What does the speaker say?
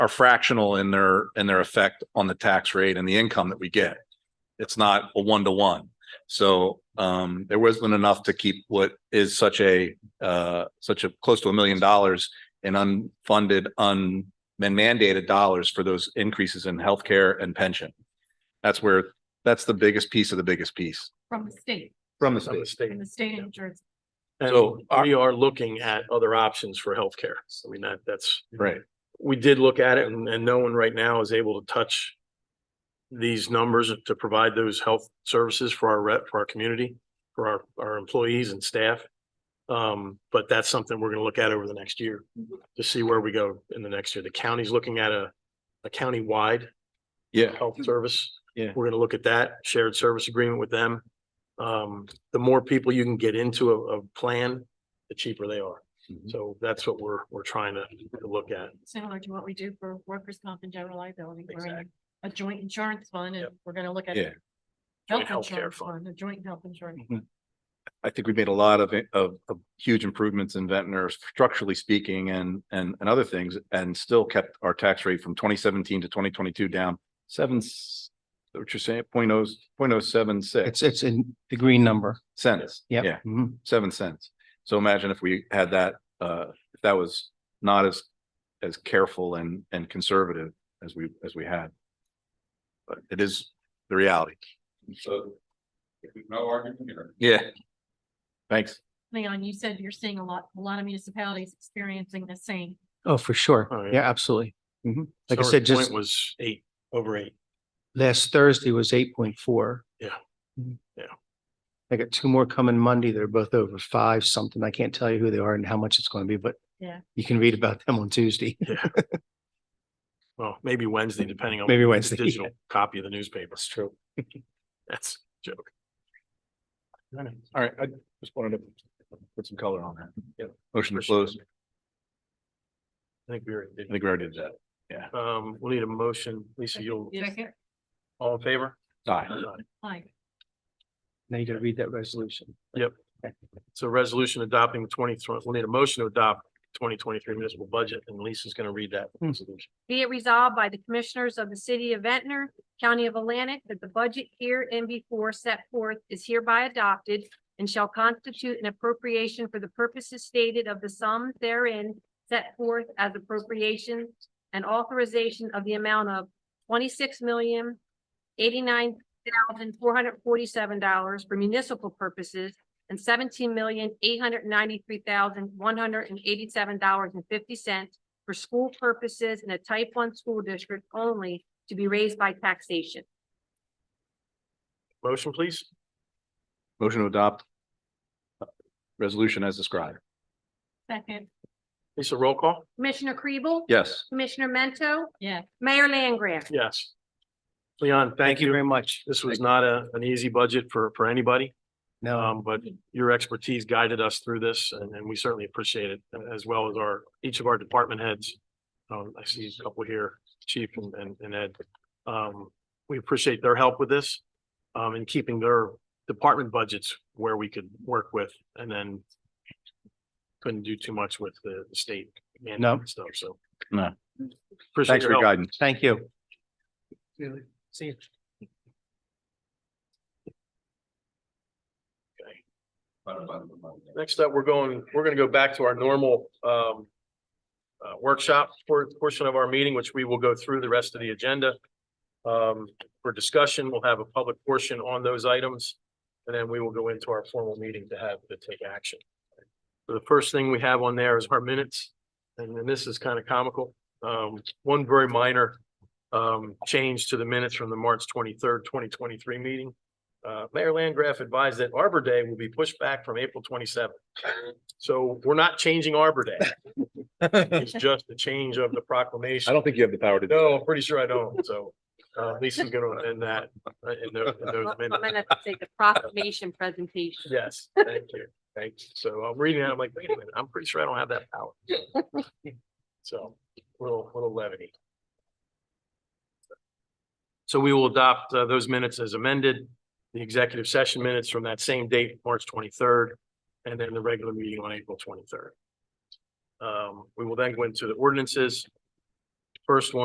are fractional in their, in their effect on the tax rate and the income that we get. It's not a one to one. So um, there wasn't enough to keep what is such a, uh, such a close to a million dollars in unfunded, un, and mandated dollars for those increases in healthcare and pension. That's where, that's the biggest piece of the biggest piece. from the state, From the from the state. from the state of New Jersey. And So our- we are looking at other options for healthcare. So I mean, that, that's, Right, we did look at it and, and no one right now is able to touch these numbers to provide those health services for our rep, for our community, for our, our employees and staff. Um, but that's something we're gonna look at over the next year to see where we go in the next year. The county's looking at a, a countywide yeah. health service. Yeah. We're gonna look at that, shared service agreement with them. Um, the more people you can get into a, a plan, the cheaper they are. Mhm. So that's what we're, we're trying to, to look at. Similar to what we do for workers' comp and general liability. We're in a joint insurance fund and Yep. we're gonna look at Yeah. Joint health healthcare insurance fund. fund, a joint health insurance. I think we've made a lot of, of, of huge improvements in Ventnor structurally speaking and, and, and other things. And still kept our tax rate from twenty seventeen to twenty twenty-two down seven, s- what you're saying, point oh, point oh seven It's, six it's in the green number. cents. Yep. Yeah, Mhm. seven cents. So imagine if we had that, uh, if that was not as, as careful and, and conservative as we, as we had. But it is the reality. So. if there's No argument here. Yeah. Thanks. Leon, you said you're seeing a lot, a lot of municipalities experiencing the same. Oh, for sure. Oh, yeah. Yeah, absolutely. Mhm. Like I Summer's said, point just Was eight, over eight. last Thursday was eight point four. Mm-hmm. Yeah. Yeah. I got two more coming Monday. They're both over five something. I can't tell you who they are and how much it's going to be, but Yeah. you can read about them on Tuesday. Well, maybe Wednesday, depending on. Maybe the Wednesday, yeah. Digital copy of the newspaper. That's true. That's a joke. All right, I just wanted to put some color on that. Yep. Motion to close. I think we already I did. think we already did that. Um, we'll need a motion. Lisa, you'll, Second, all in favor? Aye. like, Now you got to read that resolution. So resolution adopting the twenty, we'll need a motion to adopt twenty twenty-three municipal budget, and Lisa's gonna read that Hmm. resolution. Be it resolved by the Commissioners of the City of Ventnor, County of Atlantic, that the budget here and before set forth is hereby adopted and shall constitute an appropriation for the purposes stated of the sum therein set forth as appropriation and authorization of the amount of twenty-six million eighty-nine thousand four hundred forty-seven dollars for municipal purposes and seventeen million eight hundred ninety-three thousand one hundred and eighty-seven dollars and fifty cents for school purposes in a type one school district only to be raised by taxation. Motion, please. Motion to adopt. uh, Resolution as described. second, Lisa, roll call? Commissioner Kribel? Yes. Commissioner Mento? yeah, Mayor Langgraf? Yes. Leon, Thank thank you very you. much. This was not a, an easy budget for, for anybody, No, um, but your expertise guided us through this, and, and we certainly appreciate it, uh, as well as our, each of our department heads. Um, I see a couple here, Chief and, and- and Ed. Um, we appreciate their help with this, um, in keeping their department budgets where we could work with, and then couldn't do too much with the the state No. mandate stuff, so. No. Thanks Appreciate for your your help. guidance. thank you. See you. Next up, we're going, we're gonna go back to our normal um. Uh, workshop for portion of our meeting, which we will go through the rest of the agenda. Um, for discussion, we'll have a public portion on those items. And then we will go into our formal meeting to have to take action. So the first thing we have on there is our minutes, and then this is kind of comical. Um, one very minor. Um, change to the minutes from the March twenty-third, twenty twenty-three meeting. Uh, Mayor Landgraf advised that Arbor Day will be pushed back from April twenty-seventh. So we're not changing Arbor Day. It's just a change of the I proclamation. don't think you have the power to. do No, I'm pretty sure I don't, so, uh, Lisa's gonna end that, uh, in those, in those I'm minutes. gonna have to take the proclamation presentation. Yes, thank you, thank you. So I'm reading that, I'm like, wait a minute, I'm pretty sure I don't have that power. So, little, little levity. So we will adopt uh, those minutes as amended, the executive session minutes from that same date, March twenty-third, and then the regular meeting on April twenty-third. Um, we will then go into the ordinances. First one.